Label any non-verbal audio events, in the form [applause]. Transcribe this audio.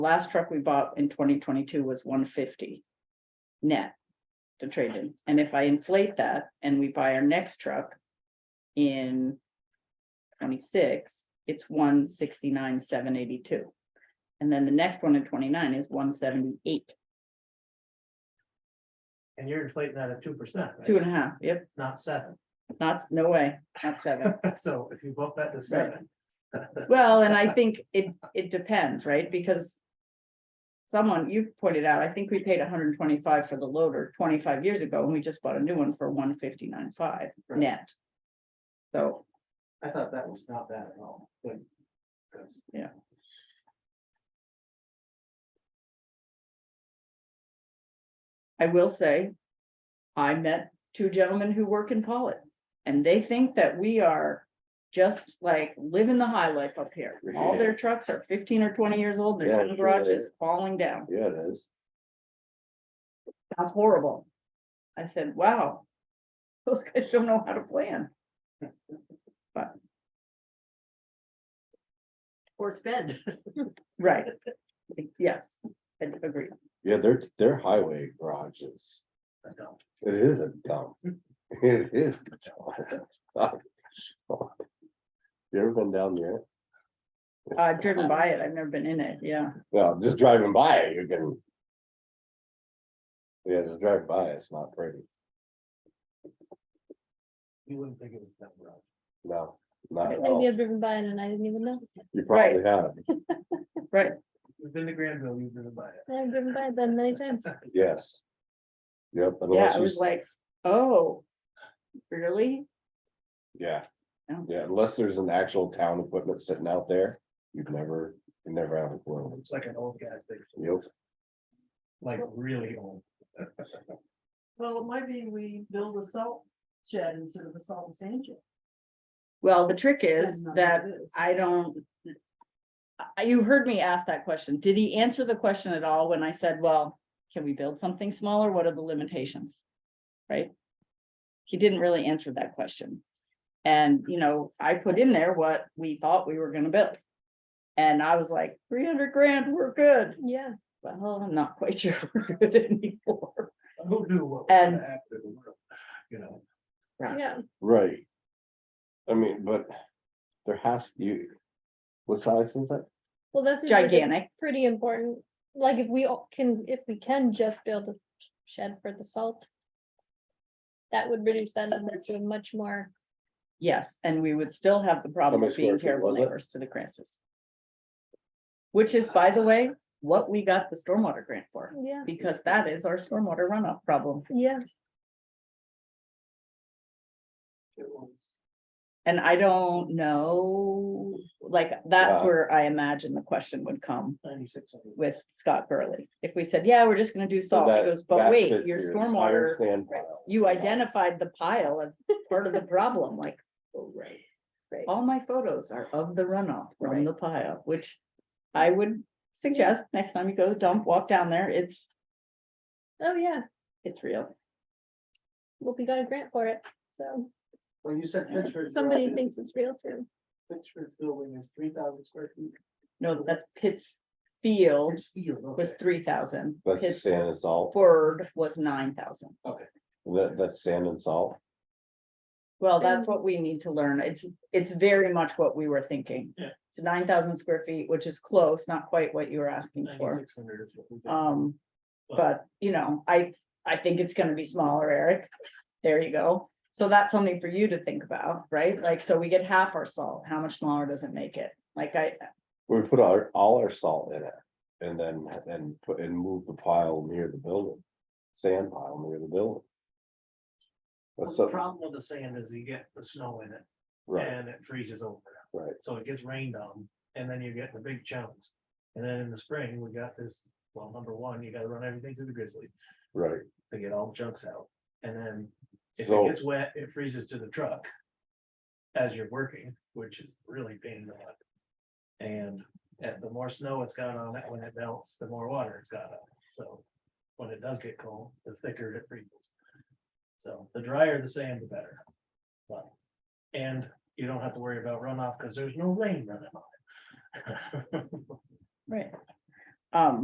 last truck we bought in twenty twenty-two was one fifty. Net. To trade in, and if I inflate that and we buy our next truck. In. Twenty-six, it's one sixty-nine, seven eighty-two. And then the next one in twenty-nine is one seventy-eight, And you're inflating that at two percent, two right? and a half, yep, Not seven. [laughs] not, no way, not seven. So if you bump that to seven. Well, and I think it, it depends, right, because. Someone, you pointed out, I think we paid hundred and twenty-five for the loader twenty-five years ago, and we just bought a new one for one fifty-nine five Right. net. So, I thought that was not bad at all, but. because- Yeah. I will say. I met two gentlemen who work in Pollitt, and they think that we are. Just like living the high life up here, all their trucks are fifteen or twenty years old, Yeah, their sure garage they is falling down. Yeah, it is. That's horrible. I said, wow. [laughs] Those guys don't know how to plan. Or spend. [laughs] Right. Yes, I agree. Yeah, their, their highway garages. I don't. It is a dump. [laughs] It is. a dump. [laughs] You ever been down there? Uh, driven by it. I've never been in it. Yeah. Well, just driving by it, you can. Yeah, just driving by it, it's not pretty. You wouldn't think it was that rough. No, not at Maybe all. I've driven by it and I didn't even know. You probably have, You've been to Granville, you've been to buy it. I've driven by it then many times. yes. Yep. Yeah. unless I you was s- like, oh, really? Yeah, No. yeah, unless there's an actual town equipment sitting out there, you've never, you never have a clue. It's like an old gas station, Yep, like really old. [laughs] Well, it might be we build a salt shed instead of a salt and sand shed. Well, the trick is Depends on that what it is. uh, I don't. I, you heard me ask that question. Did he answer the question at all when I said, well, can we build something smaller? What are the limitations? Right? He didn't really answer that question. And, you know, I put in there what we thought we were gonna build. And I was like, three hundred grand, we're good. Yeah, Well, I'm not quite [laughs] sure we're good anymore. Who knew what? was gonna And- happen to the world, You know, yeah. right. I mean, but there has, you, what size is that? Well, that's. usually the Gigantic. Pretty important. Like if we all can, if we can just build a shed for the salt. That would reduce that number to a much more, Yes, and we would still have the problem How many of being square feet terrible was it? neighbors to the Crances. Which is, by the way, what we got the stormwater grant for, yeah, because that is our stormwater runoff problem. yeah. it was. And I don't know, like, that's Yeah. where I imagine the question would come Ninety-six hundred. with Scott Burley. If we said, yeah, we're just gonna do So salt, he that- goes, that but wait, fits your entire stormwater, sand Right. pile. you identified the pile as part of the problem, like, oh, right. Right. All my photos are of the runoff from the pile, which I would suggest next time you go to the dump, walk down there, it's, Oh, yeah. it's real. Well, we got a grant for it. So Well, you said Pittsburgh. somebody thinks it's real too. Pittsburgh building is three thousand square feet. No, that's Pitts Field It's field, okay. was three thousand, That's the Pitts sand and salt, Ford was nine thousand. that, that's sand and salt, Well, that's what we need to learn. It's, it's very much what we were thinking. Yeah. It's nine thousand square feet, which is close, not quite what you were asking for. 9,600 is what we got. Um, but, you know, I, I think it's gonna be smaller, Eric. There you go. So that's something for you to think about, right? Like, so we get half our salt, how much smaller does it make it? Like I, we put our, all our salt in it. And then, and put, and move the pile near the building, sand pile near the building. Well, That's The so, problem with the sand is you get the snow in it right, and it freezes over. right, So it gets rained on and then you get the big chunks. And then in the spring, we got this, well, number one, you gotta run everything through the grizzly right. to get all the chunks out. And then if it So- gets wet, it freezes to the truck. As you're working, which is really pain in the butt. And uh, the more snow it's got on it, when it melts, the more water it's got on it. So when it does get cold, the thicker it freezes. So the drier the sand, the better. But, and you don't have to [laughs] worry about runoff because there's no rain running on it. right, Um,